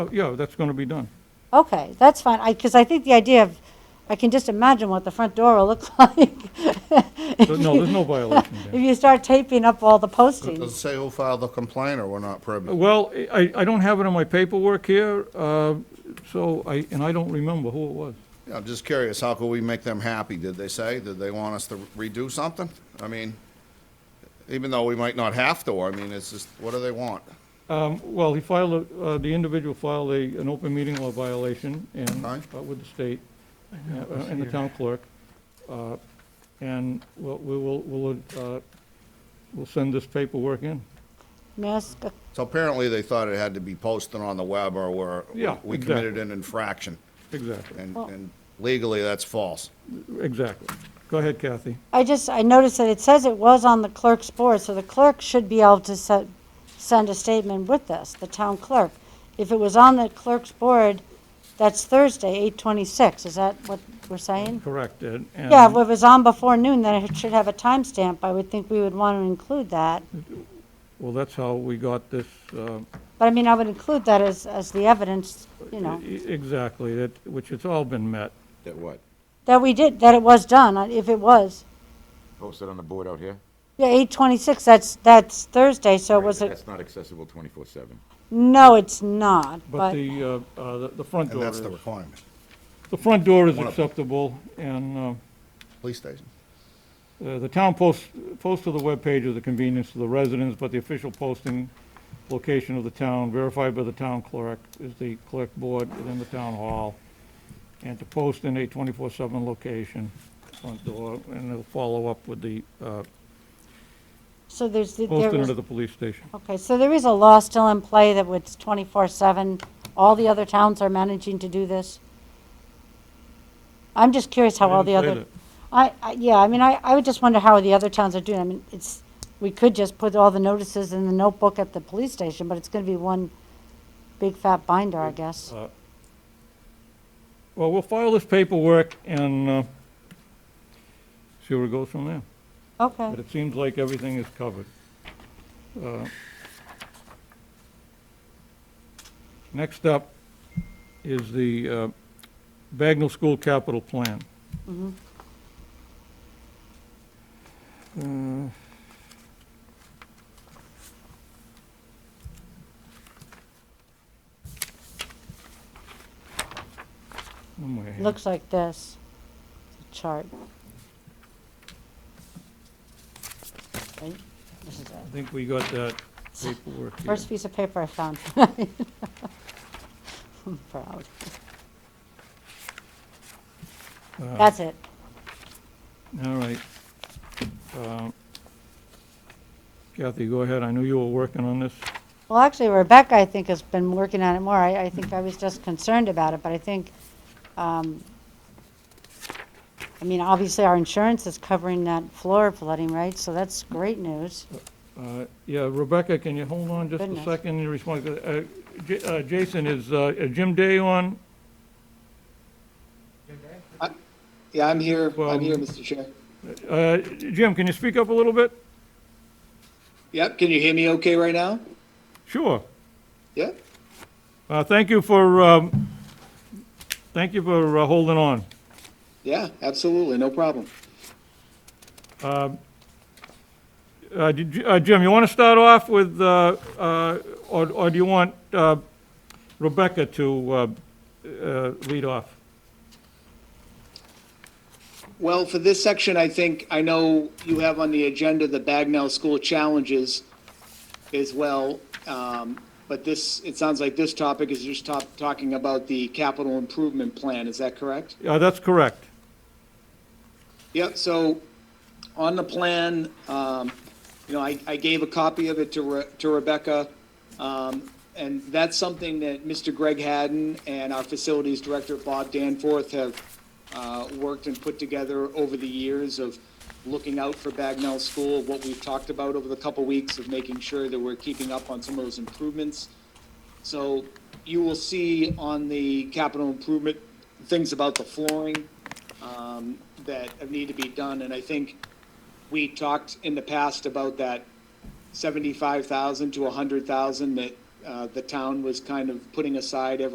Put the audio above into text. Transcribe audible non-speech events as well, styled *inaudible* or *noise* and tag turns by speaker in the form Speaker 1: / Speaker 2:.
Speaker 1: Oh, Yeah, that's going to be done.
Speaker 2: Okay, that's fine, I, because I think the idea of, I can just imagine what the front door will look *laughs* like. If
Speaker 1: So, No,
Speaker 2: you-
Speaker 1: there's no violation
Speaker 2: *laughs* If
Speaker 1: there.
Speaker 2: you start taping up all the
Speaker 3: Does it
Speaker 2: postings.
Speaker 3: say who filed the complaint or we're not privy?
Speaker 1: Well, I, I don't have it on my paperwork here, uh, so I, and I don't remember who it was.
Speaker 3: Yeah, I'm just curious, how could we make them happy? Did they say, did they want us to redo something? I mean, even though we might not have to, I mean, it's just, what do they want?
Speaker 1: Um, Well, he filed, a- uh, the individual filed a, an open meeting law violation and,
Speaker 3: Aye.
Speaker 1: uh, with the state uh, and the town clerk. Uh, And we'll, we will, we'll, uh, we'll send this paperwork in.
Speaker 2: May I ask a-
Speaker 3: So apparently they thought it had to be posted on the web or we're,
Speaker 1: Yeah,
Speaker 3: we committed an infraction.
Speaker 1: Exactly,
Speaker 3: And
Speaker 2: Well-
Speaker 3: and legally, that's false.
Speaker 1: exactly. Go ahead, Kathy.
Speaker 2: I just, I noticed that it says it was on the clerk's board, so the clerk should be able to se- send a statement with this, the town clerk. If it was on the clerk's board, that's Thursday, eight twenty-six, is that what we're saying?
Speaker 1: Correct, Ed. and-
Speaker 2: Yeah, if it was on before noon, then it should have a timestamp, I would think we would want to include that.
Speaker 1: Well, that's how we got this, uh,
Speaker 2: But I mean, I would include that as, as the evidence, you know,
Speaker 1: e- exactly, that, which it's all been met.
Speaker 4: That what?
Speaker 2: that we did, that it was done, uh, if it was.
Speaker 4: Posted on the board out here?
Speaker 2: Yeah, eight twenty-six, that's, that's Thursday, so
Speaker 4: Right,
Speaker 2: was
Speaker 4: but
Speaker 2: it,
Speaker 4: That's not accessible twenty-four seven.
Speaker 2: no, it's not,
Speaker 1: But
Speaker 2: but,
Speaker 1: the, uh, uh, the- the front
Speaker 3: And
Speaker 1: door
Speaker 3: that's
Speaker 1: is,
Speaker 3: the requirement.
Speaker 1: the front door is
Speaker 3: One of them.
Speaker 1: acceptable, and uh,
Speaker 3: Police station.
Speaker 1: uh, the town post, post to the webpage is a convenience to the residents, but the official posting location of the town verified by the town clerk is the clerk board within the town hall, and to post in a 24/7 location, front door, and they'll follow up with the, uh,
Speaker 2: so there's, the- there
Speaker 1: posting
Speaker 2: was,
Speaker 1: to the police station.
Speaker 2: okay, so there is a law still in play that it's twenty-four seven. All the other towns are managing to do this. I'm just curious how
Speaker 1: I
Speaker 2: all the
Speaker 1: didn't say
Speaker 2: other,
Speaker 1: that.
Speaker 2: I, I, yeah, I mean, I, I would just wonder how the other towns are doing. I mean, it's, we could just put all the notices in the notebook at the police station, but it's gonna be one big fat binder, I guess.
Speaker 1: Uh, Well, we'll file this paperwork and uh, see where it goes from there.
Speaker 2: Okay.
Speaker 1: But it seems like everything is covered. Uh, Next up is the uh, Bagnell School Capital Plan.
Speaker 2: Mm-hmm.
Speaker 1: Uh, somewhere here.
Speaker 2: Looks like this, the chart. Right? This is
Speaker 1: I
Speaker 2: it.
Speaker 1: think we got that paperwork here.
Speaker 2: First piece of paper I found. *laughs* I'm proud.
Speaker 1: Uh,
Speaker 2: That's it.
Speaker 1: All right. Um, Kathy, go ahead. I knew you were working on this.
Speaker 2: Well, actually Rebecca, I think, has been working on it more. I, I think I was just concerned about it, but I think, um, I mean, obviously our insurance is covering that floor flooding, right? So that's great news.
Speaker 1: Uh, Yeah, Rebecca, can you hold on just a
Speaker 2: Goodness.
Speaker 1: second in response? Uh, J- uh, Jason, is uh, is Jim Day on?
Speaker 5: Yeah, I'm here.
Speaker 1: Well-
Speaker 5: I'm here, Mr. Chair.
Speaker 1: Uh, Jim, can you speak up a little bit?
Speaker 5: Yep, can you hear me okay right now?
Speaker 1: Sure.
Speaker 5: Yep.
Speaker 1: Uh, Thank you for, um, thank you for uh, holding on.
Speaker 5: Yeah, absolutely, no problem.
Speaker 1: Uh, did you- uh, Jim, you want to start off with, uh, uh, or or do you want uh, Rebecca to uh, uh, lead off?
Speaker 5: Well, for this section, I think, I know you have on the agenda the Bagnell School Challenges as well. Um, but this, it sounds like this topic is just top, talking about the capital improvement plan, is that correct?
Speaker 1: Uh, That's correct.
Speaker 5: Yep, so on the plan, um, you know, I, I gave a copy of it to Re- to Rebecca. Um, and that's something that Mr. Greg Hadden and our facilities director, Bob Danforth, have, uh, worked and put together over the years of looking out for Bagnell School, what we've talked about over the couple weeks of making sure that we're keeping up on some of those improvements. So you will see on the capital improvement, things about the flooring, um, that need to be done, and I think we talked in the past about that seventy-five thousand to a hundred thousand that uh, the town was kind of putting aside every